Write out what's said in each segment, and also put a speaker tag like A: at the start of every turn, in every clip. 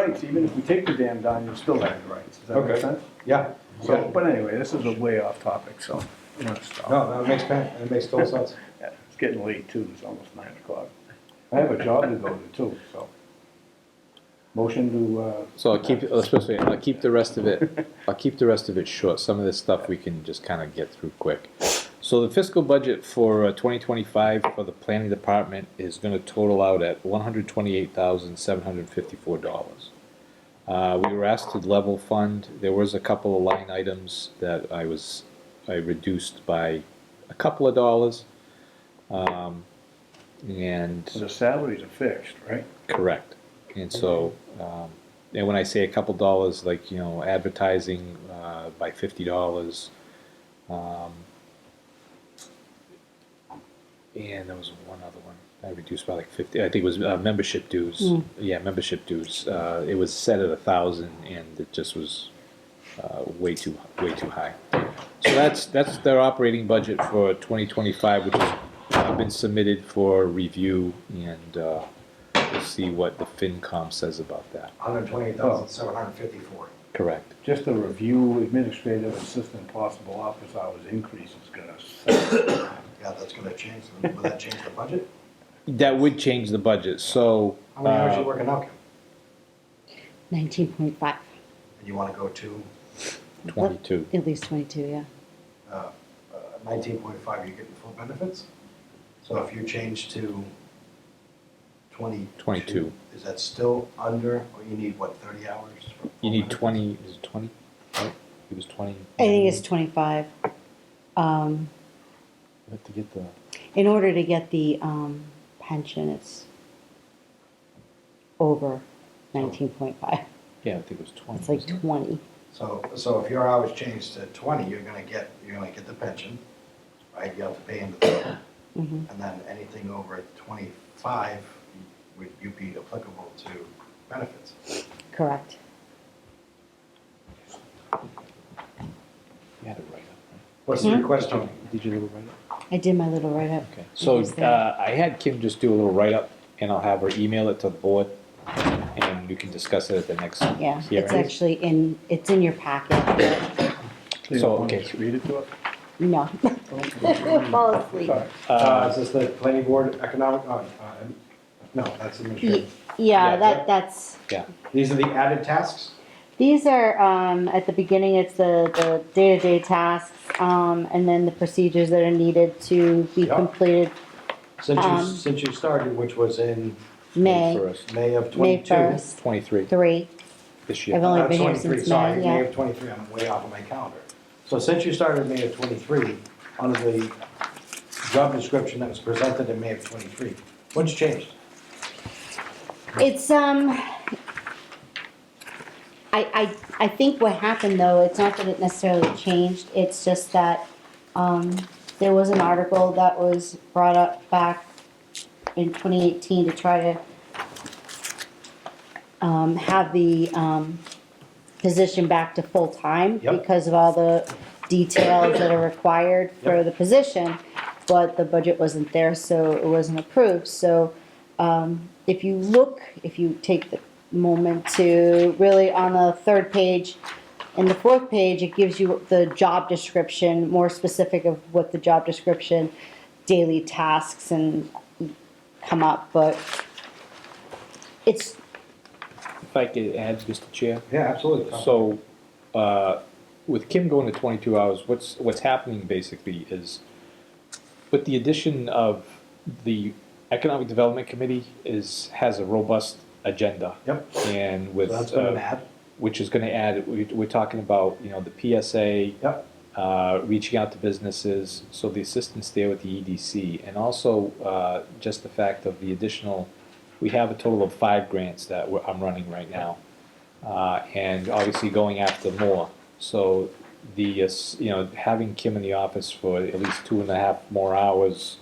A: rights, even if we take the dam down, you still have your rights, does that make
B: Okay.
A: sense?
B: Yeah.
A: So, but anyway, this is a way off topic, so I'm gonna stop.
B: No, that makes, pen- that makes total sense.
A: Yeah, It's getting late too, it's almost nine o'clock. I have a job to go to too, so. Motion to, uh,
C: So I'll keep, let's put it this way, I'll keep the rest of it, I'll keep the rest of it short. Some of this stuff we can just kind of get through quick. So the fiscal budget for uh, 2025 for the planning department is going to total out at $128,754. Uh, We were asked to level fund. There was a couple of line items that I was, I reduced by a couple of dollars. Um, And.
A: the salaries are fixed, right?
C: Correct. And so, um, and when I say a couple dollars, like, you know, advertising, uh, by fifty dollars, um, and there was one other one I reduced by like fifty, I think it was, uh, membership dues. Yeah, membership dues, uh, it was set at a thousand and it just was, uh, way too, way too high. So that's, that's their operating budget for twenty twenty-five, which has uh, been submitted for review and, uh, We'll see what the FinCom says about that.
D: Hundred twenty-eight thousand, seven hundred fifty-four.
C: Correct.
A: Just a review, administrative assistant, possible office hours increase is gonna, suck.
D: Yeah, that's gonna change, the- will that change the budget?
C: That would change the budget, so.
D: How many hours
C: uh,
D: you working now, Kim?
E: Nineteen point five.
D: And you wanna go to,
C: uh, 22.
E: At least twenty-two, yeah.
D: uh, nineteen point five, you're getting full benefits? So if you change to twenty.
C: 22.
D: Is that still under, or you need, what, thirty hours? for full
C: You need
D: benefits?
C: 20, is it 20? Right? It was 20.
E: I think it's twenty-five. Um,
C: You have to get the,
E: in order to get the, um, pension, it's over nineteen point five.
C: yeah, I think it was 20.
E: It's like
C: wasn't it?
E: twenty.
D: So, so if your hours change to twenty, you're gonna get, you're gonna get the pension, right, you have to pay into the,
E: Mhm.
D: and then anything over twenty-five, you- would you be applicable to benefits?
E: Correct.
C: You had it right up.
B: What's the
E: Hmm?
B: request, Tony?
C: right? Did you do it right?
E: I did my little write-up.
C: Okay. So
E: It was there.
C: uh, I had Kim just do a little write-up, and I'll have her email it to the board, and we can discuss it at the next
E: Yeah, it's
C: hearing.
E: actually in, it's in your packet.
A: you
C: So,
A: don't wanna
C: okay.
A: just read it to us?
E: No. Fall asleep.
A: Sorry.
B: Uh,
C: Uh,
B: is this the planning board economic, uh, uh, no, that's
E: Y-
B: administrative.
E: Yeah,
B: Yeah.
E: that, that's.
C: Yeah,
B: These are the added tasks?
E: These are, um, at the beginning, it's the, the day-to-day tasks, um, and then the procedures that are needed to be
B: Yeah.
E: completed
D: Since you,
E: Um,
D: since you started, which was in
E: May,
C: first,
D: May of
E: May
D: twenty-two. uh,
E: 1st,
C: 23
E: three.
C: this
E: I've
C: year.
E: only been here
D: 23,
E: since
D: sorry,
E: May,
D: May
E: yeah.
D: of twenty-three, I'm way off of my calendar. So since you started May of twenty-three, under the job description that was presented in May of twenty-three, what's changed?
E: It's, um, I, I, I think what happened though, it's not that it necessarily changed, it's just that, um, there was an article that was brought up back in twenty eighteen to try to um, have the, um, position back to full-time
B: Yep.
E: because of all the details that are required for
B: Yep.
E: the position, but the budget wasn't there, so it wasn't approved, so, um, if you look, if you take the moment to, really on the third page and the fourth page, it gives you the job description, more specific of what the job description, daily tasks and come up, but it's,
C: If I could add, Mr. Chair?
B: Yeah, absolutely.
C: So, uh, with Kim going to twenty-two hours, what's, what's happening basically is, with the addition of the Economic Development Committee is, has a robust agenda.
B: Yep.
C: And
D: So
C: with,
D: That's been
C: uh,
D: bad.
C: which is gonna add, we, we're talking about, you know, the PSA,
B: Yep,
C: uh, reaching out to businesses, so the assistance there with the EDC, and also uh, just the fact of the additional, we have a total of five grants that we're, I'm running right now, uh, and obviously going after more. So the, uh, s- you know, having Kim in the office for at least two and a half more hours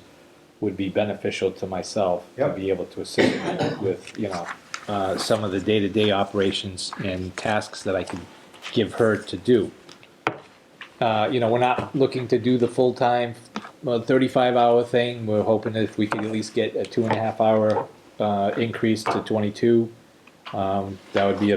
C: would be beneficial to myself to
B: Yep.
C: be able to assist with, you know, uh, some of the day-to-day operations and tasks that I can give her to do uh, you know, we're not looking to do the full-time, uh, thirty-five hour thing. We're hoping that if we could at least get a two and a half hour, uh, increase to twenty-two. Um, that would be a